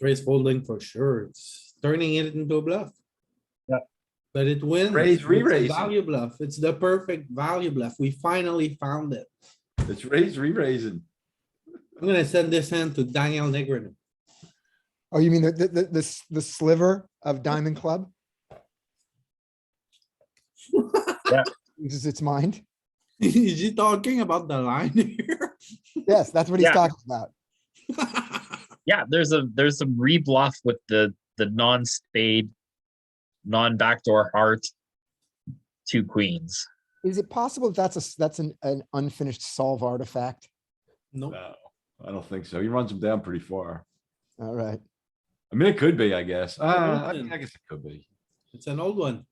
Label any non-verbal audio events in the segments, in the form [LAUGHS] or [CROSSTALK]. Raise folding for sure. It's turning it into a bluff. Yeah. But it wins. Raise, It's a re-raise. Value bluff. It's the perfect value bluff. We finally found it. It's raise, re-raising. I'm gonna send this hand to Daniel Negreanu. Oh, you mean the, the, the, the s- the sliver of [LAUGHS] Diamond Club? Yeah. Uses its mind. [LAUGHS] Is he talking about the line here? [LAUGHS] Yes, that's what he's Yeah. talking about. Yeah, there's a there's some rebluff with the the non spade, non backdoor heart, two queens. Is it possible that that's a, s- that's an, an unfinished solve artifact? No, No, I don't think so. He runs them down pretty far. Alright, I mean, it could be, I guess. Uh, I open. mean, I guess it could be. it's an old one.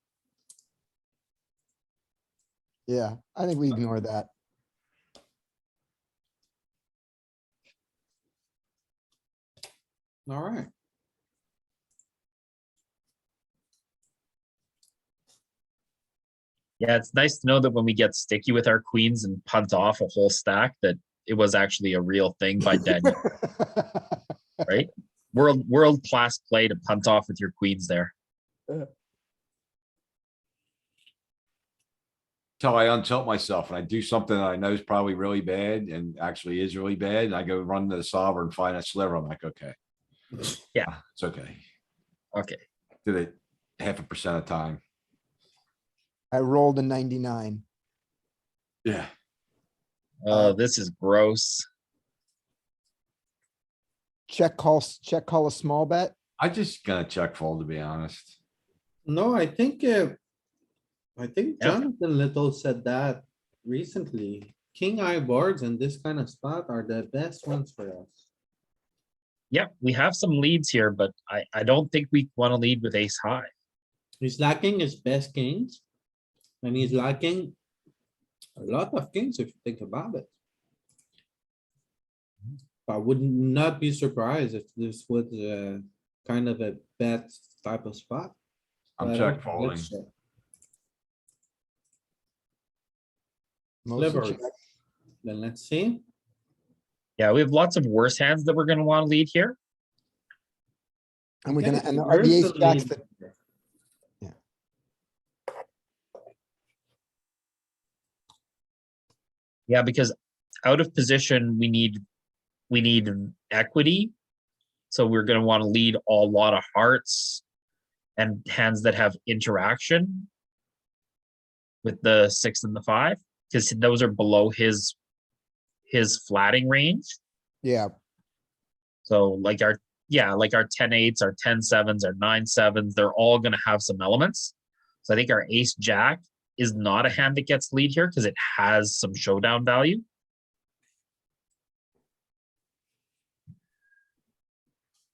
yeah, I think we ignore that. [LAUGHS] Alright. Yeah, it's nice to know that when we get sticky with our queens and punt off a whole stack, that it was actually a real thing by Daniel. right? World world class play to punt off with your queens there. Till I untilt myself and I do something that I know is probably really bad and actually is really bad. And I go run to the sovereign, find a sliver. I'm like, okay. Ah, Yeah. It's okay. Okay. Did it half a percent of time. I rolled a ninety-nine. Yeah. Oh, this is gross. Check call, s- check call a small bet. I just gonna check fold, to be honest. No, I think, uh, I think Yeah. Jonathan Little said that recently. King eye boards and this kind of spot are the best ones for us. Yeah, we have some leads here, but I, I don't think we want to lead with ace high. He's lacking his best kings. And he's lacking a lot of kings if you think about it. I would not be surprised if this was uh kind of a bet type of spot. I'm but I check don't think folding. it's, uh, Mostly Sliver. check. Then let's see. Yeah, we have lots of worse hands that we're gonna want to lead here. And we're gonna, Yeah, and the there's RBA the stacks lead. that, Yeah. Yeah, because out of position, we need, we need equity. So we're gonna want to lead a lot of hearts and hands that have interaction with the six and the five, because those are below his, his flatting range. yeah, So like our yeah, like our 10 eights, our 10 sevens, our 9 sevens, they're all gonna have some elements. So I think our ace jack is not a hand that gets lead here because it has some showdown value.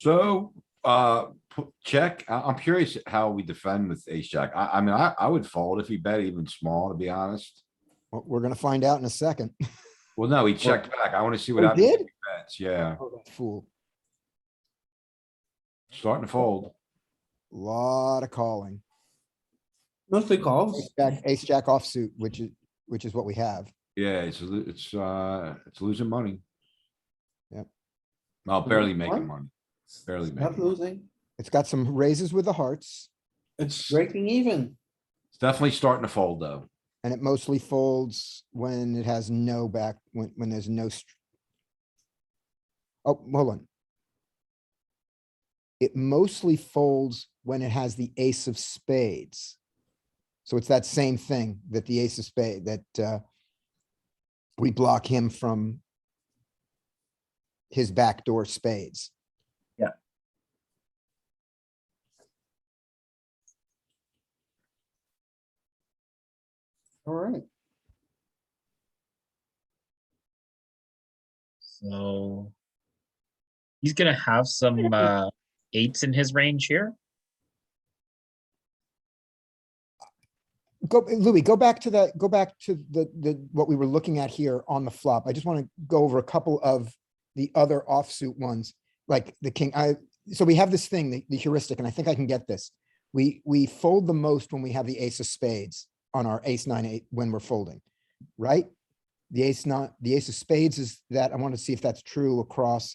So, uh, p- check, I, I'm curious how we defend with ace jack. I, I mean, I, I would fold if he bet even small, to be honest. we're we're gonna find out in a second. Well, no, he checked back. I wanna see what Oh, happens. if did? he bets. Yeah, [LAUGHS] Fool, starting to fold. lot of calling. Mostly calls. Ace jack, ace jack offsuit, which is, which is what we have. Yeah, it's, a lo- it's, uh, it's losing money. Yep. Well, barely money? making money. Barely Not making. money. losing. It's got some raises with the hearts It's breaking even. It's definitely starting to fold though. and it mostly folds when it has no back, when, when there's no. str- Oh, hold on. It mostly folds when it has the ace of spades. So it's that same thing that the ace of spade, that, uh, we block him from his backdoor spades. Alright, So he's gonna have some uh eights in his range here. Go, Louis, go back to that, go back to the, the, what we were looking at here on the flop. I just want to go over a couple of the other offsuit ones, like the king, I, so we have this thing, the- the heuristic, and I think I can get this. We, we fold the most when we have the ace of spades on our ace nine eight when we're folding, right? The ace not, the ace of spades is that, I want to see if that's true across